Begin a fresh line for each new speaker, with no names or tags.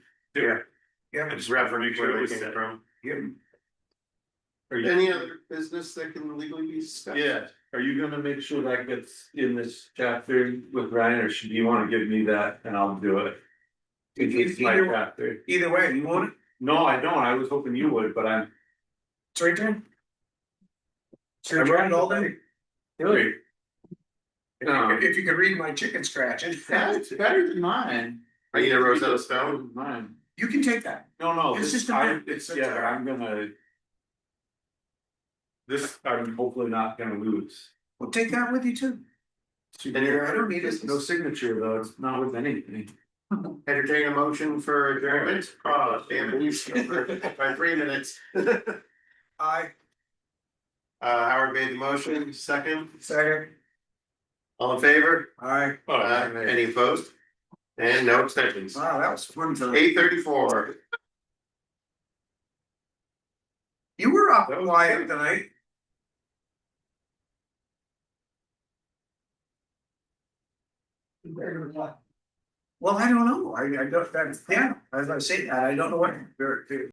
Yeah.
Yeah.
I just referenced
Where
where
we
they came
said.
from.
Are you-
Any other business that can legally be discussed?
Yeah, are you gonna make sure that gets in this chapter with Ryan, or should you wanna give me that and I'll do it?
If
It's
you-
my
either-
chapter.
Either way, you want it?
No, I don't, I was hoping you would, but I'm.
It's right there. So
I
you're
read
trying all day.
Really?
If you could-
No.
If you could read my chicken scratch, it's-
That's better than mine.
I need a Rosetta Stone.
Mine,
you can take that.
no, no,
It's
this,
just a
I,
map.
it's, yeah, I'm gonna. This, I'm hopefully not gonna lose.
Well, take that with you too.
And you're-
I don't need
There's
it.
no signature though, it's not with anything.
Entertain a motion for adjournment, oh, damn it, you skipped by three minutes. Uh,
I,
Howard made the motion, second,
sorry,
all in favor?
I,
Uh, any opposed? And no extensions,
wow, that was fun tonight.
eight thirty-four,
You were up
That was
quiet
good.
tonight. Well, I don't know, I, I don't, that's, yeah, as I say that, I don't know what,